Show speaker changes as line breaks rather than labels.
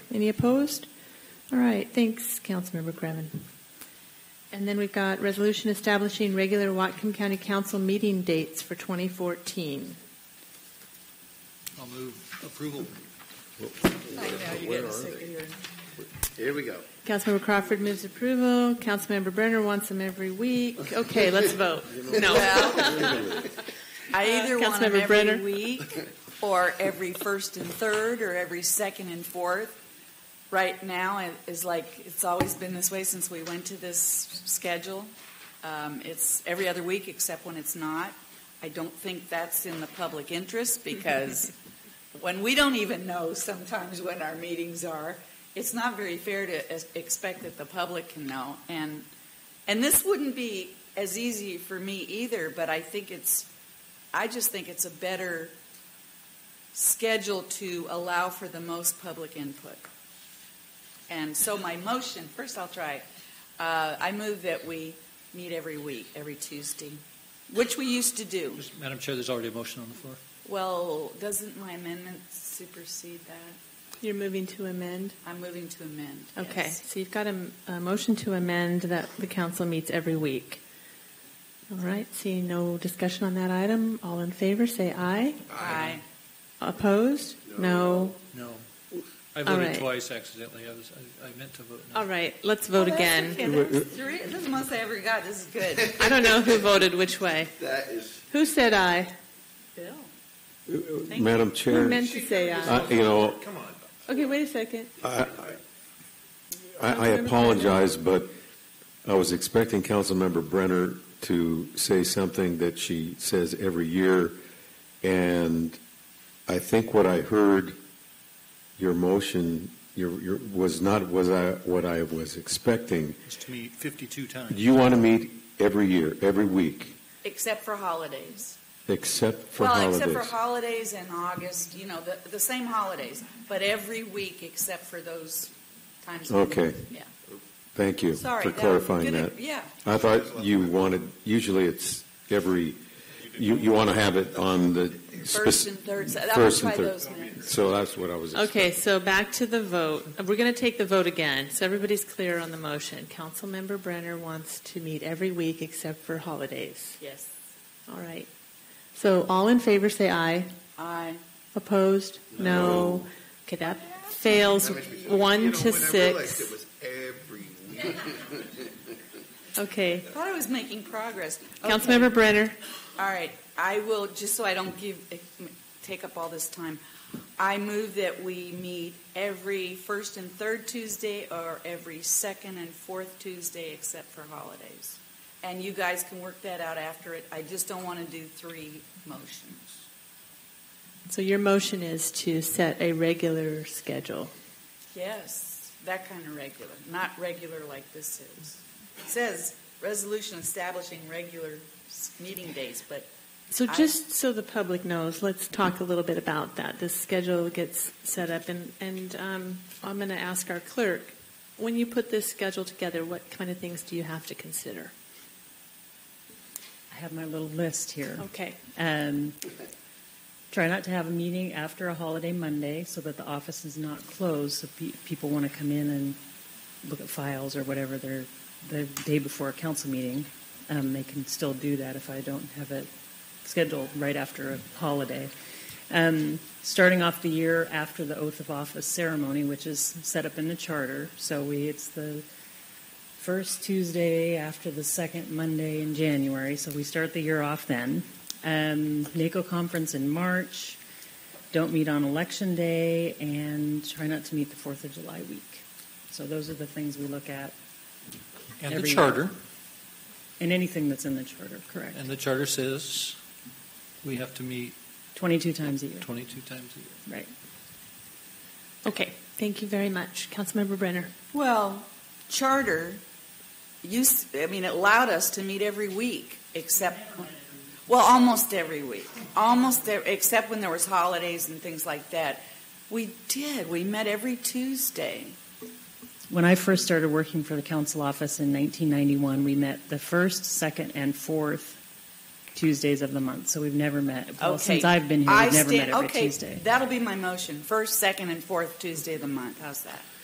Any opposed? All right, thanks, Councilmember Kremen. And then we've got resolution establishing regular Watcom County Council meeting dates for 2014.
I'll move approval.
Here we go.
Councilmember Crawford moves approval. Councilmember Brenner wants them every week. Okay, let's vote. No.
Well,
I either
Uh,
want them
Councilmember
every
Brenner?
week, or every first and third, or every second and fourth. Right now it is like it's always been this way since we went to this schedule. Um, it's every other week except when it's not. I don't think that's in the public interest because when we don't even know sometimes when our meetings are, it's not very fair to es- expect that the public can know. And and this wouldn't be as easy for me either, but I think it's I just think it's a better schedule to allow for the most public input. And so my motion, first I'll try, it. uh, I move that we meet every week, every Tuesday, which we used to do.
Just- Madam Chair, there's already a motion on the floor.
Well, doesn't my amendment supersede that?
You're moving to amend?
I'm moving to amend.
Okay,
yes.
so you've got a, a motion to amend that the council meets every week. All right, seeing no discussion on that item, all in favor, say aye.
Aye.
Opposed? No.
No. I
All
voted
right.
twice accidentally. I was, I- I meant to vote no.
All right, let's vote
Oh, that's
again.
okay. That's three- This is the most I ever got. This is good.
I don't know who voted which way.
That is,
Who said aye?
Bill. you.
Madam
Who
Chair,
meant to say aye?
I- you
Oh.
know,
Okay, wait a second.
I, I I apologize, but I was expecting Councilmember Brenner to say something that she says every year, and I think what I heard, your motion, your, your, was not was I, what I was expecting.
It's to me 52 times.
You want to meet every year, every week,
Except for holidays.
except for
well,
holidays.
except for holidays in August, you know, the, the same holidays, but every week except for those times. of the
Okay.
week. Yeah.
Thank you
Sorry.
for
that-
clarifying
good-
that.
Yeah.
I thought you wanted, usually it's every, you, you want to have it on the. spec-
First and third. So I'll
first and
try
third.
those minutes.
So that's what I was.
Okay, so back to the vote. We're going to take the vote again, so everybody's clear on the motion. Councilmember Brenner wants to meet every week except for holidays.
Yes.
All right. So all in favor, say aye.
I.
Opposed? No. Okay, that fails
you
one
know,
to
when I realized it
six.
was every week.
Okay.
Thought I was making progress. Okay.
Councilmember Brenner,
All right, I will, just so I don't give, eh, take up all this time, I move that we meet every first and third Tuesday or every second and fourth Tuesday except for holidays. And you guys can work that out after it. I just don't want to do three motions.
so your motion is to set a regular schedule.
Yes, that kind of regular, not regular like this is. It says resolution establishing regular s- meeting days, but
So
I-
just so the public knows, let's talk a little bit about that. This schedule gets set up, and, and um, I'm going to ask our clerk, when you put this schedule together, what kind of things do you have to consider?
I have my little list here.
Okay.
Um, try not to have a meeting after a holiday Monday so that the office is not closed, so pe- people want to come in and look at files or whatever they're, the day before a council meeting. Um, they can still do that if I don't have it scheduled right after a holiday. Um, starting off the year after the oath of office ceremony, which is set up in the charter, so we it's the first Tuesday after the second Monday in January, so we start the year off then. Um, NACO conference in March, don't meet on election day, and try not to meet the 4th of July week. So those are the things we look at,
And the
every-
charter,
and anything that's in the charter, correct?
and the charter says we have to meet
22 times a year,
22 times a year.
right.
Okay. Thank you very much. Councilmember Brenner.
Well, charter, you, s- I mean, it allowed us to meet every week, except, well, almost every week. Almost, e- except when there was holidays and things like that. We did, we met every Tuesday.
When I first started working for the council office in 1991, we met the first, second, and fourth Tuesdays of the month. So we've never met. Well,
Okay.
since I've been here,
I
we've never
stand-
met every
okay,
Tuesday.
That'll be my motion, first, second, and fourth Tuesday of the month. How's that?